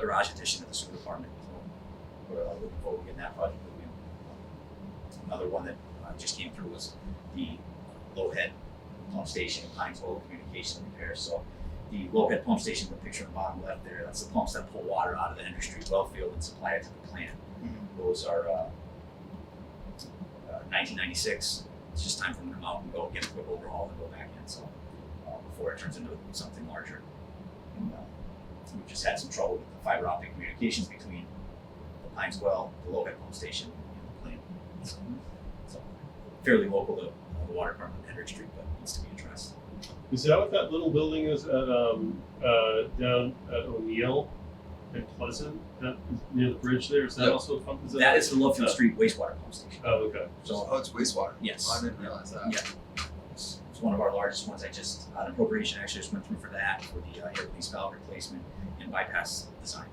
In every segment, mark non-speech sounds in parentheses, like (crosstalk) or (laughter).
garage addition of the school department. So We're uh, looking forward to getting that project moving. Another one that uh, just came through was the low head pump station, Pine Toll Communication Repair. So the low head pump station, the picture on the bottom left there, that's the pumps that pull water out of the Henry Street well field and supply it to the plant. Those are uh, uh, 1996. It's just time for them to come out and go get a quick overhaul and go back in. So uh, before it turns into something larger. And, uh, we've just had some trouble with the fiber optic communications between the Pines Well, the Lowhead Pump Station, and the plant. So fairly local to uh, the water department in Hendrick Street, but needs to be addressed. Is that what that little building is at, um, uh, down at O'Neill and Pleasant? That is near the bridge there? Is that Yep. also a pump? Is That is the uh, Lowfield Street wastewater pump station. Oh, okay. So Oh, it's wastewater. Yes. Oh, I didn't realize that. Yeah. It's it's one of our largest ones. I just, an appropriation actually just went through for that, for the uh, air release valve replacement and bypass design.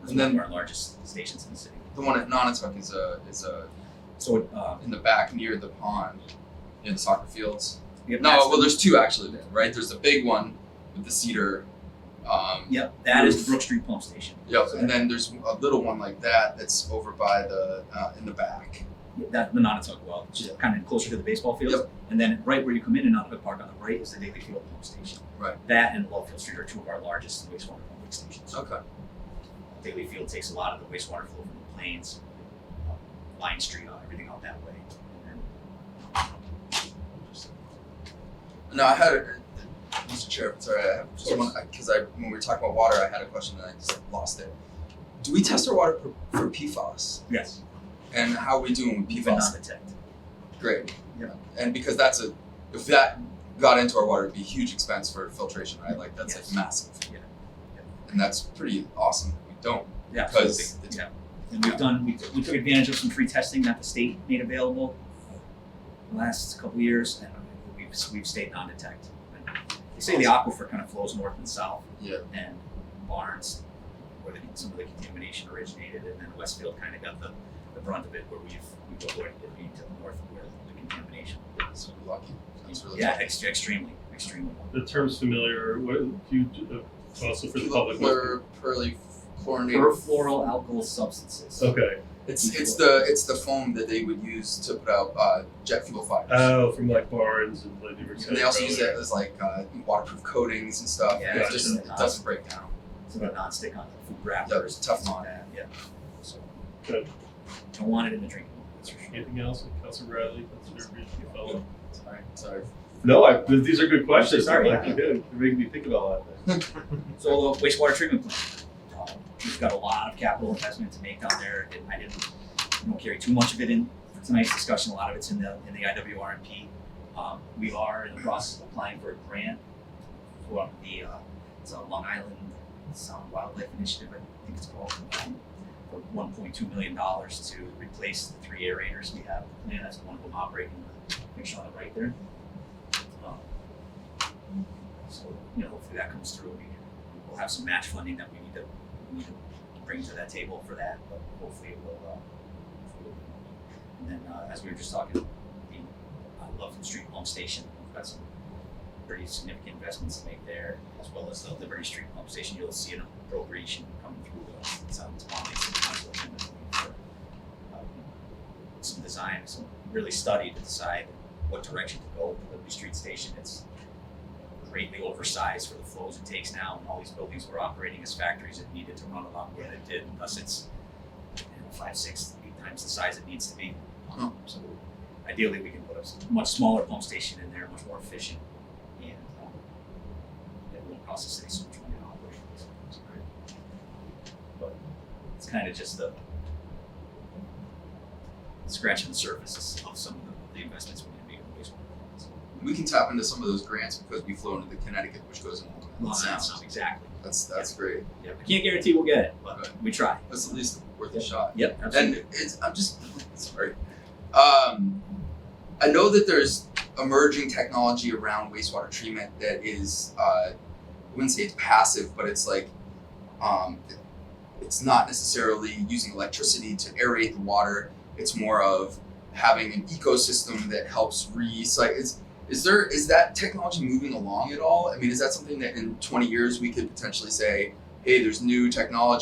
That's And one of then- our largest stations in the city. The one at Nonotuck is a is a So, um, in the back near the pond, near the soccer fields. we have No, that's the- well, there's two actually. Then, right? There's the big one with the cedar. Um, Yep, that is the Brook Street Pump Station. Yep. And then there's a little one like that that's over by the uh, in the back. That, the Nonotuck well, which is kind of closer to the baseball field. And then right where you come in in Nonotuck Park on the right is the Daily Field Pump Station. Right. That and Lowfield Street are two of our largest wastewater pumping stations. Okay. Daily Field takes a lot of the wastewater flow from the plains, uh, Line Street, uh, everything out that way. And then- No, I had, a- Mr. Chair, sorry, I have someone, because I, when we were talking about water, I had a question and I just lost it. Do we test our water for, for PFAS? Yes, And how are we doing with you've been PFAS? on detect. Great. Yeah. And because that's a, if that got into our water, it'd be a huge expense for filtration, right? Like, that's Yes. like massive. Yeah. Yeah. And that's pretty awesome that we don't. Yeah, Because absolutely. it's- yeah. And we've done, we, took- we took advantage of some free testing that the state made available the last couple of years, and we've, we've stayed non-detect. They say the aquifer kind of flows north and south, Yeah. and Barnes, where the, some of the contamination originated, and then Westfield kind of got the, the brunt of it, where we've, we've avoided it being to the north of where the contamination. was. So we're lucky. That's really Yeah, ex- extremely, extremely. The term's familiar. What do you, uh, also for the public? Plur, perly, chlorinated. Perfluoral alkyl substances. Okay. It's, it's the, it's the foam that they would use to put out, uh, jet fuel fires. Oh, from like Barnes and like you were And saying they also use it earlier. as like uh, waterproof coatings and stuff. Yeah, it's it's just just- it doesn't break down. So they're non-stick on the food Yep, wrappers. it's Teflon. that, yeah. So. Good. Don't want it in the drinking water, that's for sure. Anything else, Council Bradley? That's your brief follow-up. Sorry, sorry. No, I, th- these are good questions. Sorry. I like you did. You're making me think about a lot of things. So the wastewater treatment plant, uh, we've got a lot of capital investment to make down there, and I didn't, you know, carry too much of it in for tonight's discussion, a lot of it's in the, in the IWRMP. Um, we are in the process of applying for a grant for the, uh, it's a Long Island Sound Wildlife Initiative, I think it's called, um, for one point two million dollars to replace the three aerators we have, and that's one of them operating, make sure on the right there. Um, So, you know, hopefully that comes through, we we'll have some match funding that we need to, we need to bring to that table for that, but hopefully it will, uh, hopefully it will. and then, uh, as we were just talking, the uh, Loveland Street Pump Station, we've got some pretty significant investments to make there, as well as the Liberty Street Pump Station, you'll see an appropriation coming through, uh, it's on, it's on the council agenda for, um, some design, some really study to decide what direction to go with the Liberty Street Station, it's greatly oversized for the flows it takes now, and all these buildings were operating as factories that needed to run a lot more than it did, and thus it's you know, five, six, eight times the size it needs to be. Um, So ideally, we can put a s- much smaller pump station in there, much more efficient, and um, it won't cost the city so much money to operate. so it's great. But it's kind of just the scratching the surface of some of the- the investments we need to make in wastewater. So, We can tap into some of those grants because we flow into the Connecticut, which goes into the Long Island sound. Sound, exactly. That's that's great. Yeah, we can't guarantee we'll get it, but Right. we try. That's at least worth Yeah. a shot. Yep, And it's I'm just (laughs) sorry. Um, I know that there's emerging technology around wastewater treatment that is uh, I wouldn't say it's passive, but it's like um, it's not necessarily using electricity to aerate the water. It's more of having an ecosystem that helps recycle. Is, is there is that technology moving along at all? I mean, is that something that in 20 years we could potentially say, hey, there's new technology.